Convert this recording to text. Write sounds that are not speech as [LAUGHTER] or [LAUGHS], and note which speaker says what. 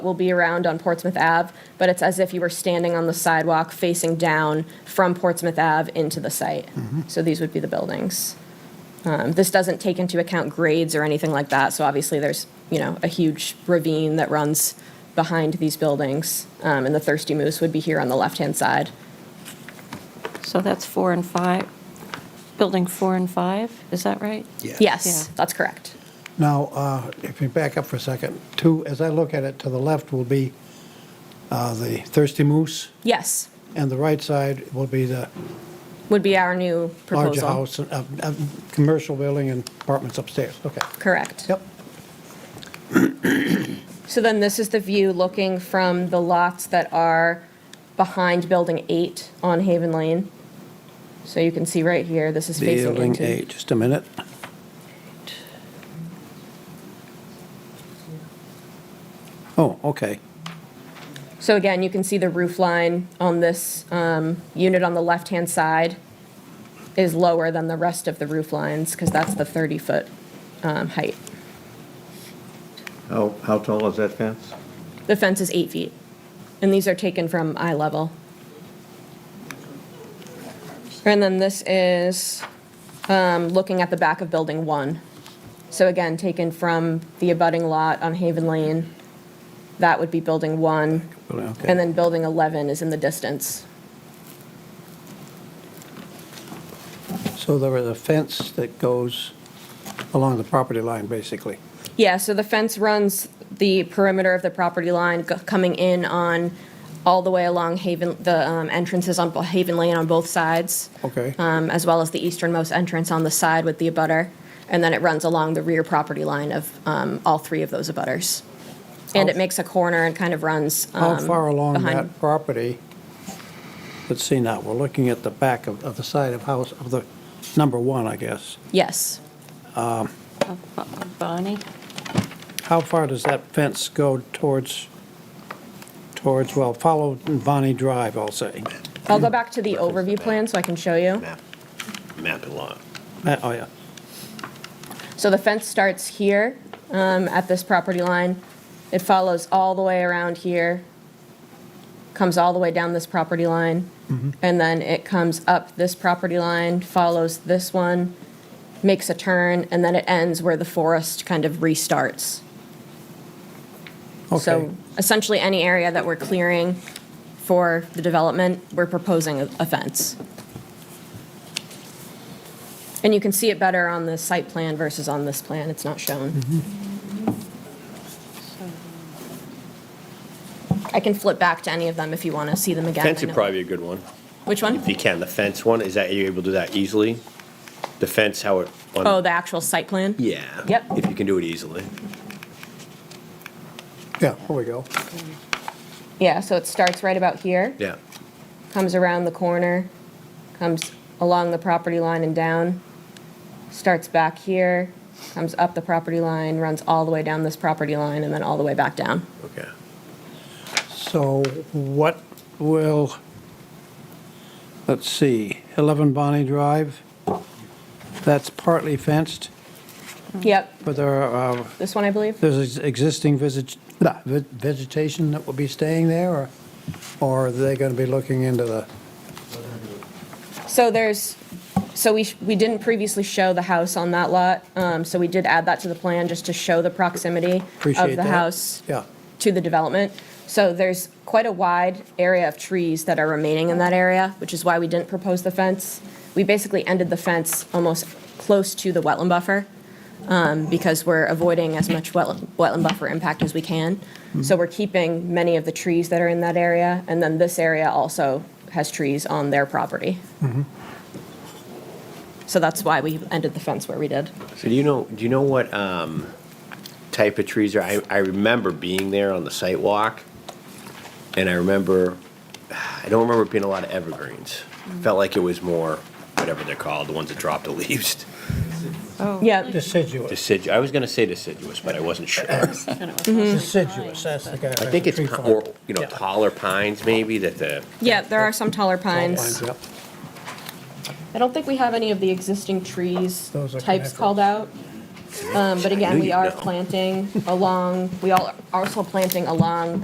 Speaker 1: will be around on Portsmouth Ave, but it's as if you were standing on the sidewalk facing down from Portsmouth Ave into the site.
Speaker 2: Mm-hmm.
Speaker 1: So these would be the buildings. Um, This doesn't take into account grades or anything like that, so obviously there's, you know, a huge ravine that runs behind these buildings, um, and the Thirsty Moose would be here on the left-hand side.
Speaker 3: So that's four and five, building four and five, is that right?
Speaker 1: Yes,
Speaker 3: Yeah.
Speaker 1: that's correct.
Speaker 2: Now, uh, if you back up for a second, to, as I look at it, to the left will be uh, the Thirsty Moose,
Speaker 1: Yes,
Speaker 2: and the right side will be the
Speaker 1: would be our new
Speaker 2: larger
Speaker 1: proposal.
Speaker 2: house, uh, uh, commercial building and apartments upstairs. Okay.
Speaker 1: Correct.
Speaker 2: Yep.
Speaker 1: So then this is the view looking from the lots that are behind Building 8 on Haven Lane. So you can see right here, this is facing
Speaker 2: Building
Speaker 1: into.
Speaker 2: eight, just a minute. Oh, okay.
Speaker 1: So again, you can see the roof line on this um, unit on the left-hand side is lower than the rest of the roof lines because that's the 30-foot height.
Speaker 4: How, how tall is that fence?
Speaker 1: The fence is eight feet, and these are taken from eye level. And then this is um, looking at the back of Building 1. So again, taken from the abutting lot on Haven Lane. That would be Building 1.
Speaker 2: Building, okay.
Speaker 1: And then Building 11 is in the distance.
Speaker 2: So there is a fence that goes along the property line, basically.
Speaker 1: Yeah, so the fence runs the perimeter of the property line go- coming in on, all the way along Haven, the um, entrances on Bo- Haven Lane on both sides.
Speaker 2: Okay.
Speaker 1: um, as well as the easternmost entrance on the side with the abutter, and then it runs along the rear property line of um, all three of those abutters. And it
Speaker 2: How-
Speaker 1: makes a corner and kind of runs.
Speaker 2: How
Speaker 1: um,
Speaker 2: far along
Speaker 1: behind-
Speaker 2: that property? Let's see now, we're looking at the back of, of the side of house, of the number one, I guess.
Speaker 1: Yes.
Speaker 3: Uh, uh, Bonnie?
Speaker 2: How far does that fence go towards, towards, well, follow Bonnie Drive, I'll say.
Speaker 1: I'll go back to the overview plan so I can show you.
Speaker 4: Map, map and lot.
Speaker 2: Uh, Oh, yeah.
Speaker 1: So the fence starts here um, at this property line. It follows all the way around here, comes all the way down this property line, and then it comes up this property line, follows this one, makes a turn, and then it ends where the forest kind of restarts.
Speaker 2: Okay.
Speaker 1: So essentially, any area that we're clearing for the development, we're proposing a a fence. And you can see it better on the site plan versus on this plan, it's not shown. I can flip back to any of them if you want to see them again.
Speaker 5: Fence
Speaker 1: I
Speaker 5: would
Speaker 1: know-
Speaker 5: probably be a good one,
Speaker 1: Which
Speaker 5: if
Speaker 1: one?
Speaker 5: you can, the fence one, is that, are you able to do that easily? The fence, how it. on-
Speaker 1: Oh, the actual site plan?
Speaker 5: Yeah.
Speaker 1: Yep.
Speaker 5: If you can do it easily.
Speaker 2: Yeah, here we go.
Speaker 1: Yeah, so it starts right about here.
Speaker 5: Yeah.
Speaker 1: comes around the corner, comes along the property line and down, starts back here, comes up the property line, runs all the way down this property line, and then all the way back down.
Speaker 5: Okay.
Speaker 2: So what will, let's see, 11 Bonnie Drive, that's partly fenced,
Speaker 1: Yep,
Speaker 2: but there are uh,
Speaker 1: this one, I believe.
Speaker 2: There's ex- existing visit- nah, ve- vegetation that will be staying there, or- or are they going to be looking into the,
Speaker 1: So there's, so we, sh- we didn't previously show the house on that lot, um, so we did add that to the plan just to show the proximity
Speaker 2: appreciate
Speaker 1: of
Speaker 2: that?
Speaker 1: the house
Speaker 2: Yeah,
Speaker 1: to the development. So there's quite a wide area of trees that are remaining in that area, which is why we didn't propose the fence. We basically ended the fence almost close to the wetland buffer um, because we're avoiding as much wetland wetland buffer impact as we can. So we're keeping many of the trees that are in that area, and then this area also has trees on their property. So that's why we ended the fence where we did.
Speaker 5: So do you know, do you know what, um, type of trees are, I, I remember being there on the site walk, and I remember, I don't remember it being a lot of evergreens. Felt like it was more, whatever they're called, the ones that drop the [LAUGHS] leaves.
Speaker 3: Oh,
Speaker 1: Yeah,
Speaker 2: deciduous,
Speaker 5: Decidu, I was gonna say deciduous, but I wasn't
Speaker 1: [LAUGHS]
Speaker 5: sure.
Speaker 3: I thought it was mostly
Speaker 2: deciduous,
Speaker 3: pine.
Speaker 2: that's the guy.
Speaker 5: I think it's, pi- or, you know,
Speaker 2: Yeah.
Speaker 5: taller pines maybe that the,
Speaker 1: yeah, there are some taller pines.
Speaker 2: Yep.
Speaker 1: I don't think we have any of the existing trees
Speaker 2: Those are
Speaker 1: types
Speaker 2: connected.
Speaker 1: called out. Um, But again, we
Speaker 5: you'd
Speaker 1: are
Speaker 5: know.
Speaker 1: planting along, we all are also planting along